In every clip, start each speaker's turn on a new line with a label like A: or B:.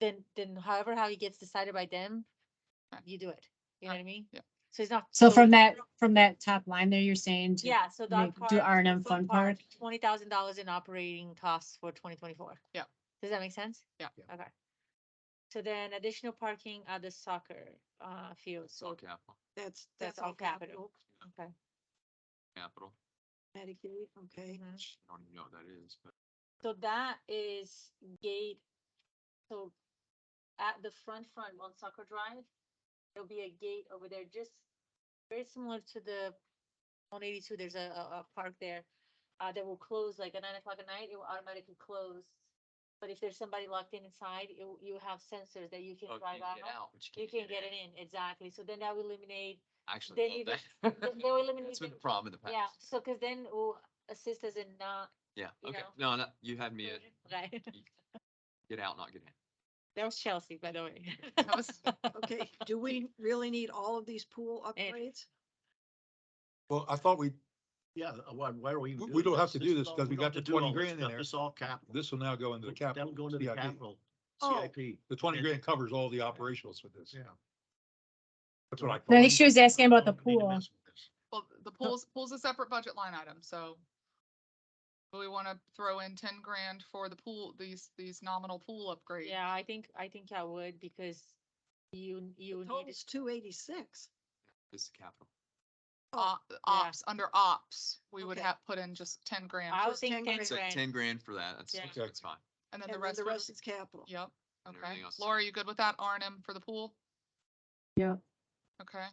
A: then, then however how he gets decided by them, uh, you do it. You know what I mean?
B: Yeah.
A: So it's not.
C: So from that, from that top line there, you're saying? to-
A: Yeah, so dog
C: make-
A: park.
C: do R and M fun park.
A: Twenty thousand dollars in operating costs for twenty twenty-four.
B: Yeah.
A: Does that make sense?
B: Yeah.
D: Yeah.
A: Okay. So then additional parking at the soccer, uh, field, so
B: capital,
E: That's,
A: that's all capital, okay.
B: capital.
E: Medicaid, okay.
A: Mhm.
B: I don't even know what that is, but.
A: So that is gate, so at the front front on Soccer Drive, there'll be a gate over there, just very similar to the one eighty-two, there's a, a, a park there. Uh, that will close like at nine o'clock at night, it will automatically close. But if there's somebody locked in inside, you, you have sensors that Oh, you can
B: oh,
A: drive out. You can get it in, exactly, so then that will eliminate, they
B: Actually,
A: need
B: love
A: to-
B: that.
A: they- they will eliminate
B: That's been a
A: the-
B: problem in the past.
A: yeah, so, cause then it will assist us in not.
B: Yeah,
A: you
B: okay.
A: know.
B: No, no, you had me at
A: Okay.
B: get out, not get in.
A: That was Chelsea, by the way.
B: That was-
E: Okay, do we really need all of these pool
A: And-
E: upgrades?
D: Well, I thought we,
F: Yeah, uh, why, why are we?
D: We-
F: even
D: we
F: doing
D: don't have to do
F: is
D: this
F: all-
D: 'cause we got
F: don't
D: the
F: have to do all
D: 20
F: this
D: grand in
F: stuff.
D: there.
F: This is all capital.
D: this will now go into the
F: That'll
D: capital.
F: go into the
D: CIP.
F: capital,
E: Oh.
F: CIP.
D: The twenty
F: And-
D: grand covers all the operationals for this.
F: Yeah.
D: That's what I
C: No, I think
D: thought.
C: she was asking about the
F: Don't need to
C: pool.
F: mess with this.
B: Well, the pool's, pool's a separate budget line item, so. do We wanna throw in ten grand for the pool, these, these nominal pool upgrades.
A: Yeah, I think, I think I would because you, you need,
E: Total's two eighty-six.
B: This is capital.
E: Oh,
B: Op- Ops, under ops, we would
E: Okay.
B: have put in just ten grand,
A: I
B: for-
A: would
E: Just
A: think
E: 10
A: ten
E: grand.
B: so ten
A: grand.
B: grand for that, that's,
A: Yeah.
D: Okay.
B: that's fine. And then
E: And
B: the
E: then
B: rest,
E: the
B: would-
E: rest is capital.
B: yep, And okay. everything else. Laura, you good with that, R and M for the pool?
C: Yeah.
B: Okay,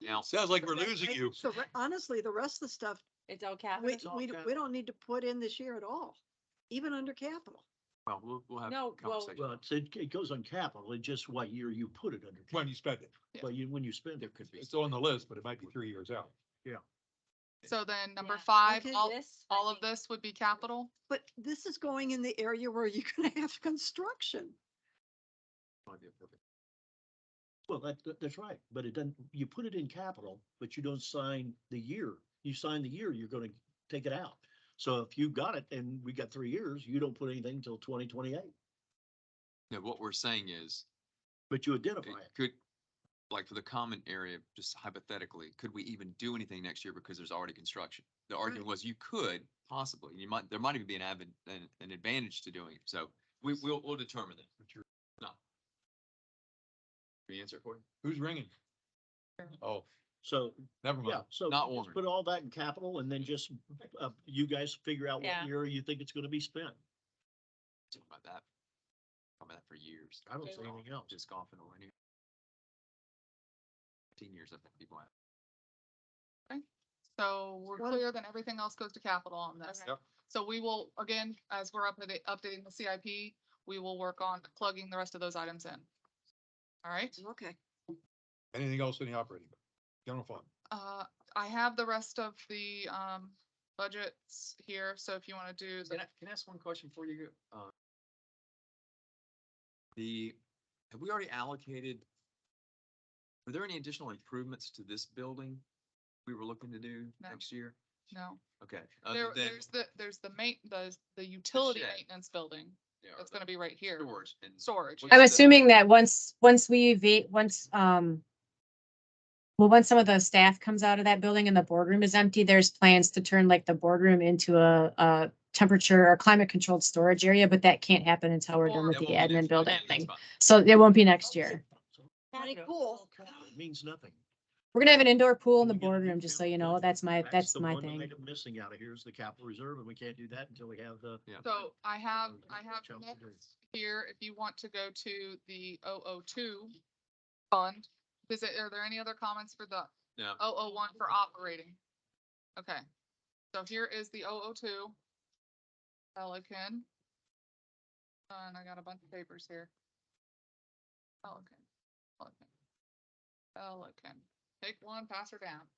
D: Now, sounds like we're
E: But
D: losing
E: I-
D: you.
E: So re- honestly, the rest of the stuff,
A: It's all
E: we,
A: capital.
F: all
E: we, d- we
F: capital.
E: don't need to put in this year at all, even under capital.
B: well, we'll, we'll have
A: No,
B: a
A: well-
B: conversation.
F: Well, it's- it, it goes on capital, it's just what year you put it under.
D: When you spend it,
B: Yeah.
F: But you, when you spend
B: There
F: it.
B: could be.
D: it's on the list, but it might be three years out.
B: So then number
A: Yeah.
B: five,
E: Okay.
B: all,
A: This, I
B: all of
A: think-
B: this would be capital?
E: But this is going in the area where you're gonna have construction.
F: Well, that, that- that's right, but it doesn't, you put it in capital, but you don't sign the year. You sign the year, you're gonna take it out. So if you got it and we got three years, you don't put anything until twenty twenty-eight,
B: No, what we're saying is,
F: but you
B: it
F: identify it.
B: could, like for the common area, just hypothetically, could we even do anything next year because there's already construction? The argument was you could possibly, you might, there might even be an advan an, an advantage to doing it, so we, we'll, we'll determine that. No. The answer, Corey?
D: Who's ringing? Oh,
F: So,
D: never
F: yeah,
D: mind.
F: so
B: Not
F: just
B: Warren.
F: put all that in capital and then just, uh, you guys figure out
A: Yeah.
F: what year you think it's gonna be spent.
B: Talking about that. Talking about that for years.
F: I don't
B: Just
F: see
B: golf-
F: anything else.
B: Just golfing or any. Fifteen years, I think people have.
G: So we're
E: What-
G: clear, then everything else goes to capital on this.
A: Okay.
D: Yep.
G: So we will, again, as we're updating, updating the CIP, we will work on plugging the rest of those items in. All right,
E: Okay.
D: Anything else in the operating? General fund.
G: uh, I have the rest of the, um, budgets here, so if you want to do, the-
B: Can I, can I ask one question before you go? Uh, The, have we already allocated? Were there any additional improvements to this building we were looking to do
G: No.
B: next year?
G: no.
B: Okay.
G: There,
B: other than
G: there's the, there's the main, the, the utility
B: shed.
G: maintenance building,
B: yeah, or
G: that's
B: the
G: gonna be right here,
B: Storage and.
G: storage.
B: What's
C: I'm
B: the-
C: assuming that once, once we evade, once, um, well, once some of the staff comes out of that building and the boardroom is empty, there's plans to turn like the boardroom into a, a temperature or climate controlled storage area, but that can't happen until we're done
G: Or-
C: with
B: Yeah,
C: the
B: well, we did-
C: admin
B: okay,
C: building
B: that's
C: thing.
B: fine.
C: So it won't be next year.
E: Pretty
A: Capital.
E: cool.
F: It means nothing.
C: We're gonna have an indoor pool in the
F: We're gonna do
C: boardroom, just so you
F: capital
C: know. That's my, that's
F: the
C: my
F: one
C: thing.
F: item Missing out of here is the capital reserve, and we can't do that until we have the.
B: Yeah.
G: So I have,
F: Okay,
G: I have
F: Chelsea,
G: next
F: please.
G: here, if you want to go to the 002 fund, is it, are there any other comments for the 001
B: No,
G: for operating? Okay, so here is the 002 Pelican. Uh, And I got a bunch of papers here. Pelican, Pelican, Pelican, take one, pass her down.